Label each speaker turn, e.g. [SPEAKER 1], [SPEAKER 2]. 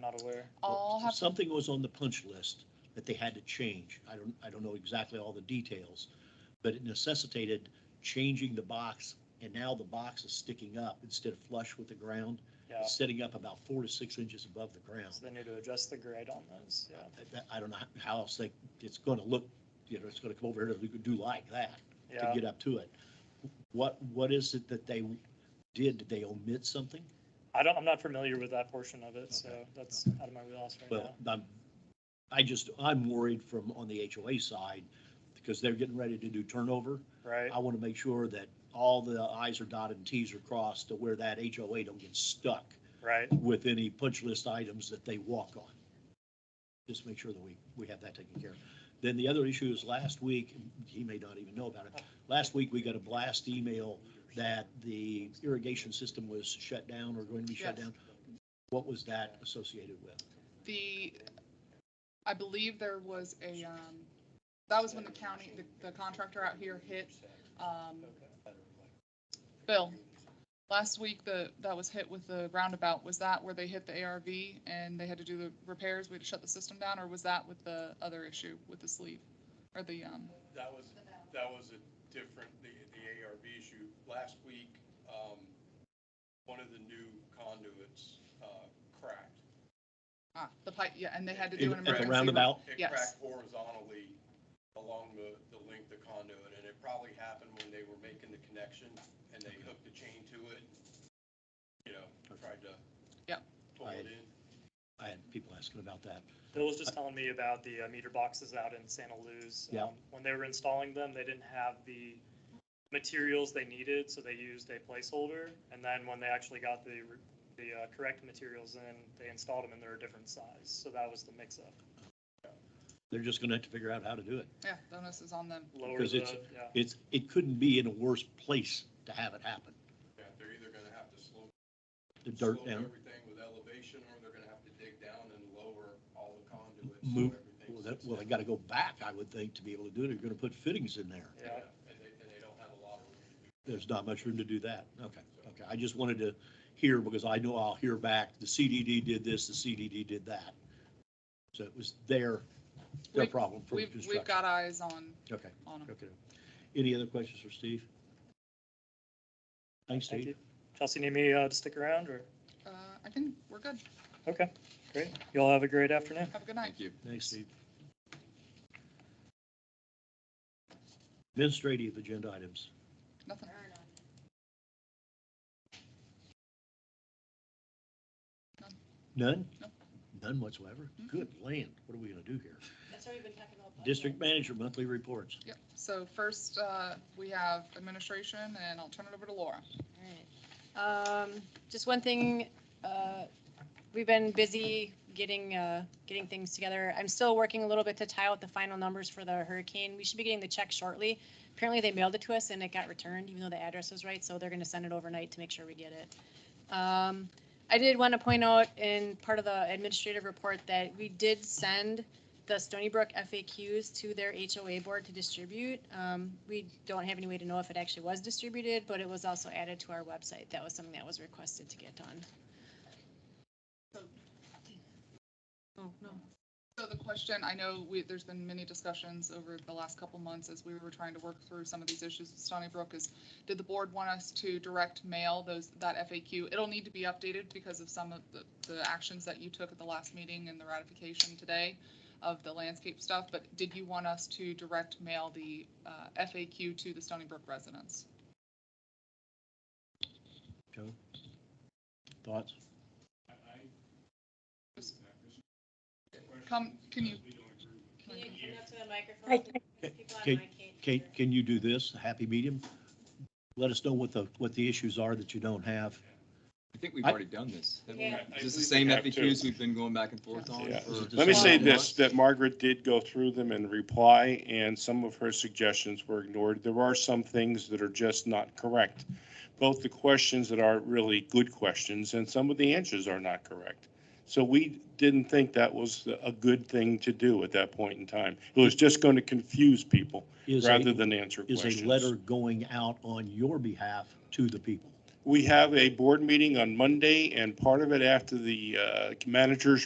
[SPEAKER 1] not aware.
[SPEAKER 2] I'll have, to-
[SPEAKER 3] Something was on the punch list that they had to change. I don't, I don't know exactly all the details, but it necessitated changing the box. And now the box is sticking up instead of flush with the ground,
[SPEAKER 1] Yeah,
[SPEAKER 3] it's setting up about four to six inches above the ground.
[SPEAKER 1] so they need to adjust the grade on those, yeah,
[SPEAKER 3] I- that- I don't know how else they, it's going to look, you know, it's going to come over here to do like that to
[SPEAKER 1] yeah.
[SPEAKER 3] get up to it. What, what is it that they did? Did they omit something?
[SPEAKER 1] I don't, I'm not familiar with that portion of it, so
[SPEAKER 3] Okay.
[SPEAKER 1] that's out of my wheelhouse right now.
[SPEAKER 3] Well, I'm, I just, I'm worried from, on the HOA side, because they're getting ready to do turnover.
[SPEAKER 1] Right,
[SPEAKER 3] I want to make sure that all the i's are dotted and t's are crossed to where that HOA don't get stuck
[SPEAKER 1] right.
[SPEAKER 3] with any punch list items that they walk on. Just make sure that we, we have that taken care of. Then the other issue is last week, and he may not even know about it, last week we got a blast email that the irrigation system was shut down or going to be shut
[SPEAKER 2] Yes.
[SPEAKER 3] down. What was that associated with?
[SPEAKER 2] the, I believe there was a, um, that was when the county, the- the contractor out here hit, um, Bill, last week, the, that was hit with the roundabout, was that where they hit the ARV and they had to do the repairs, we had to shut the system down, or was that with the other issue with the sleeve? Or the, um,
[SPEAKER 4] That was, that was a different, the, the ARV issue. Last week, um, one of the new conduits, uh, cracked.
[SPEAKER 2] ah, the pipe, yeah, and they had to do an
[SPEAKER 3] At
[SPEAKER 2] emergency.
[SPEAKER 3] the
[SPEAKER 2] re-
[SPEAKER 3] roundabout?
[SPEAKER 4] It
[SPEAKER 2] Yes.
[SPEAKER 4] cracked horizontally along the, the length of conduit, and it probably happened when they were making the connection and they hooked a chain to it. You know, tried to.
[SPEAKER 2] Yep.
[SPEAKER 4] Pull it in.
[SPEAKER 3] I had people asking about that.
[SPEAKER 1] Bill was just telling me about the uh, meter boxes out in Santa Luz.
[SPEAKER 3] Yeah.
[SPEAKER 1] Um, When they were installing them, they didn't have the materials they needed, so they used a placeholder. And then when they actually got the, re- the uh, correct materials in, they installed them and they're a different size. So that was the mix-up.
[SPEAKER 3] They're just going to have to figure out how to do it.
[SPEAKER 2] Yeah, bonus is on them.
[SPEAKER 1] Lower
[SPEAKER 3] Because
[SPEAKER 1] the,
[SPEAKER 3] it's-
[SPEAKER 1] yeah,
[SPEAKER 3] It's, it couldn't be in a worse place to have it happen.
[SPEAKER 4] Yeah, they're either gonna have to slow.
[SPEAKER 3] The dirt
[SPEAKER 4] slow
[SPEAKER 3] down,
[SPEAKER 4] Everything with elevation, or they're gonna have to dig down and lower all the conduits. so
[SPEAKER 3] move,
[SPEAKER 4] everything
[SPEAKER 3] well, that-
[SPEAKER 4] sits
[SPEAKER 3] well, they
[SPEAKER 4] down.
[SPEAKER 3] got to go back, I would think, to be able to do it. They're going to put fittings in there.
[SPEAKER 1] yeah.
[SPEAKER 4] And they, and they don't have a lot of room.
[SPEAKER 3] There's not much room to do that. Okay, okay. I just wanted to hear because I know I'll hear back, the CDD did this, the CDD did that. So it was their, their
[SPEAKER 2] We've-
[SPEAKER 3] problem for the
[SPEAKER 2] We've, we've
[SPEAKER 3] construction.
[SPEAKER 2] got eyes on,
[SPEAKER 3] Okay,
[SPEAKER 2] on them.
[SPEAKER 3] okay. Any other questions for Steve? Thanks,
[SPEAKER 1] Thank
[SPEAKER 3] Steve.
[SPEAKER 1] you. Chelsea, need me uh, to stick around or?
[SPEAKER 2] Uh, I think we're good.
[SPEAKER 1] Okay, great. Y'all have a great afternoon.
[SPEAKER 2] Have a good night.
[SPEAKER 5] Thank you.
[SPEAKER 3] Thanks, Steve. Administrative agenda items.
[SPEAKER 2] Nothing.
[SPEAKER 3] None?
[SPEAKER 2] No.
[SPEAKER 3] None whatsoever?
[SPEAKER 2] Mm-mm.
[SPEAKER 3] Good land, what are we gonna do here?
[SPEAKER 6] That's already been talking about.
[SPEAKER 3] District manager monthly reports.
[SPEAKER 2] Yep. So first, uh, we have administration and I'll turn it over to Laura.
[SPEAKER 6] Alright. Um, just one thing, uh, we've been busy getting, uh, getting things together. I'm still working a little bit to tie out the final numbers for the hurricane. We should be getting the check shortly. Apparently they mailed it to us and it got returned, even though the address was right, so they're gonna send it overnight to make sure we get it. Um, I did want to point out in part of the administrative report that we did send the Stony Brook FAQs to their HOA board to distribute. Um, we don't have any way to know if it actually was distributed, but it was also added to our website. That was something that was requested to get done. Oh, no.
[SPEAKER 2] So the question, I know we, there's been many discussions over the last couple months as we were trying to work through some of these issues with Stony Brook is, did the board want us to direct mail those, that FAQ? It'll need to be updated because of some of the, the actions that you took at the last meeting and the ratification today of the landscape stuff, but did you want us to direct mail the uh, FAQ to the Stony Brook residents?
[SPEAKER 3] Joe? Thoughts?
[SPEAKER 2] Come, can you?
[SPEAKER 6] Can you come up to the
[SPEAKER 7] I
[SPEAKER 6] microphone?
[SPEAKER 7] can-
[SPEAKER 6] Because people
[SPEAKER 3] Can-
[SPEAKER 6] on my
[SPEAKER 3] Can,
[SPEAKER 6] case.
[SPEAKER 3] can you do this, a happy medium? Let us know what the, what the issues are that you don't have.
[SPEAKER 5] I think we've
[SPEAKER 3] I-
[SPEAKER 5] already done this. haven't we?
[SPEAKER 6] Yeah.
[SPEAKER 5] Is this the same
[SPEAKER 8] I believe we have
[SPEAKER 5] FAQs we've been going back and forth on?
[SPEAKER 8] Yeah.
[SPEAKER 5] for-
[SPEAKER 8] Let me say
[SPEAKER 5] Well,
[SPEAKER 8] this, that Margaret did go through them and reply, and some of her suggestions were ignored. There are some things that are just not correct. Both the questions that are really good questions and some of the answers are not correct. So we didn't think that was a good thing to do at that point in time. It was just going to confuse people
[SPEAKER 3] Is
[SPEAKER 8] rather
[SPEAKER 3] a,
[SPEAKER 8] than answer
[SPEAKER 3] is
[SPEAKER 8] questions.
[SPEAKER 3] a letter going out on your behalf to the people?
[SPEAKER 8] We have a board meeting on Monday, and part of it after the uh, managers